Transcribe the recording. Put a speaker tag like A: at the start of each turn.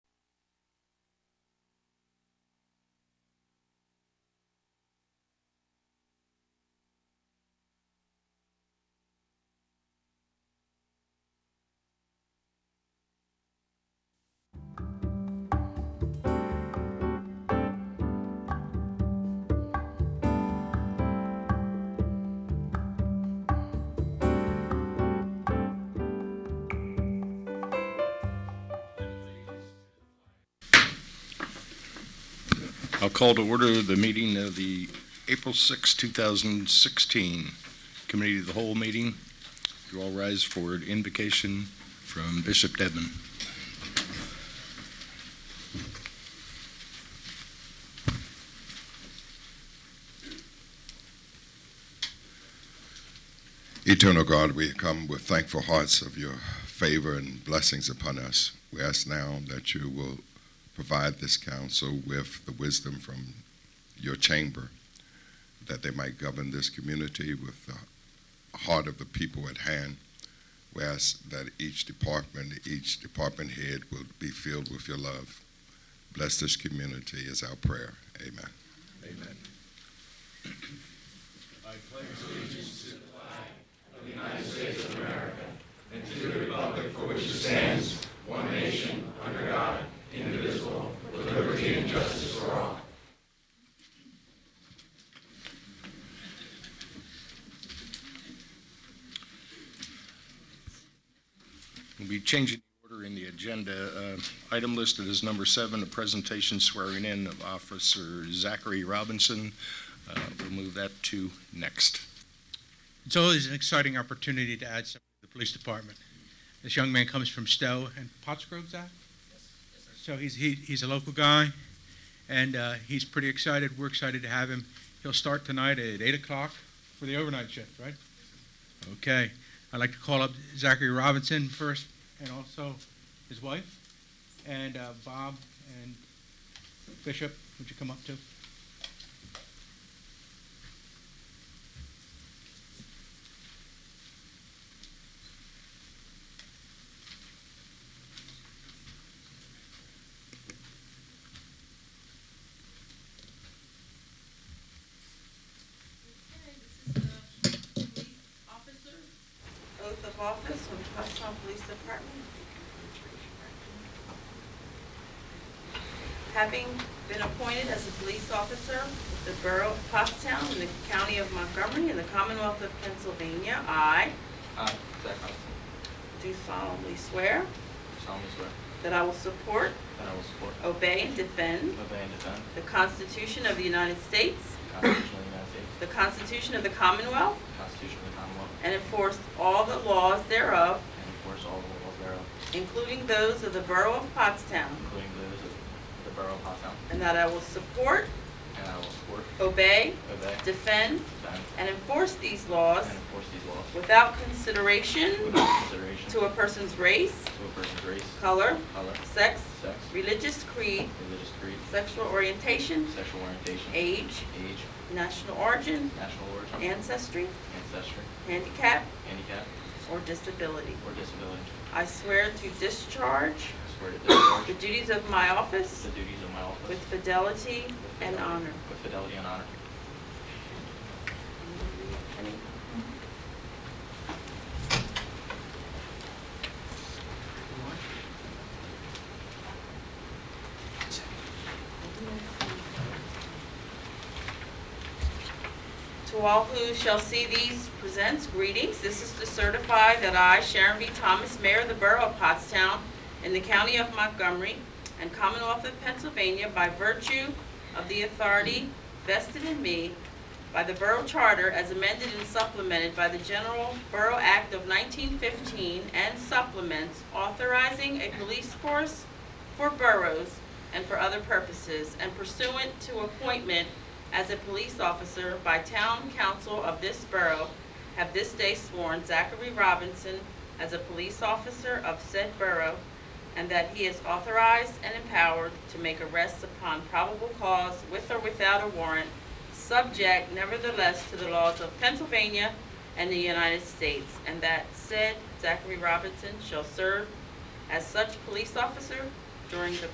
A: I'll call to order the meeting of the April 6, 2016 Committee of the Whole meeting. You all rise for an invocation from Bishop Devon.
B: Eternal God, we come with thankful hearts of your favor and blessings upon us. We ask now that you will provide this council with the wisdom from your chamber, that they might govern this community with the heart of the people at hand. We ask that each department, each department head will be filled with your love. Bless this community is our prayer. Amen.
A: Amen. We'll be changing the order in the agenda. Uh, Item listed as number seven, a presentation swearing in of Officer Zachary Robinson. Uh, We'll move that to next.
C: It's always an exciting opportunity to add something to the police department. This young man comes from Stowe and Potts Grove, Zach? So he's, he, he's a local guy, and uh, he's pretty excited. We're excited to have him. He'll start tonight at 8 o'clock for the overnight shift, right? Okay. I'd like to call up Zachary Robinson first, and also his wife, and uh, Bob and Bishop, would you come up too?
D: Okay, this is the police officer, oath of office from Pottstown Police Department. Having been appointed as a police officer of the Borough of Pottstown in the County of Montgomery in the Commonwealth of Pennsylvania, I
E: I, Uh, Zach Robinson,
D: do solemnly swear
E: solemnly swear
D: that I will support,
E: that I will support,
D: obey, and defend
E: obey, and defend
D: the Constitution of the United States,
E: the Constitution of the United States,
D: the Constitution of the Commonwealth,
E: the Constitution of the Commonwealth,
D: and enforce all the laws thereof
E: and enforce all the laws thereof,
D: including those of the Borough of Pottstown,
E: including those of the Borough of Pottstown,
D: and that I will support,
E: and I will support,
D: obey,
E: obey,
D: defend,
E: defend,
D: and enforce these laws
E: and enforce these laws
D: without consideration
E: without consideration
D: to
E: to
D: a person's race,
E: a person's race,
D: color,
E: color,
D: sex,
E: sex,
D: religious creed,
E: religious creed,
D: sexual orientation,
E: sexual orientation,
D: age,
E: age,
D: national origin,
E: national origin,
D: ancestry,
E: ancestry,
D: handicap,
E: handicap,
D: or disability.
E: or disability.
D: I swear to discharge
E: I swear to
D: the
E: discharge
D: duties of my office
E: the duties of my office
D: with fidelity
E: with
D: and
E: fidelity-
D: honor.
E: With fidelity and honor.
D: To all who shall see these presents, greetings. This is to certify that I, Sharon B. Thomas, Mayor of the Borough of Pottstown, in the County of Montgomery and Commonwealth of Pennsylvania, by virtue of the authority vested in me by the Borough Charter as amended and supplemented by the General Borough Act of 1915 and supplements authorizing a police force for boroughs and for other purposes, and pursuant to appointment as a police officer by town council of this borough, have this day sworn Zachary Robinson as a police officer of said borough, and that he is authorized and empowered to make arrests upon probable cause with or without a warrant, subject nevertheless to the laws of Pennsylvania and the United States, and that said Zachary Robinson shall serve as such police officer during the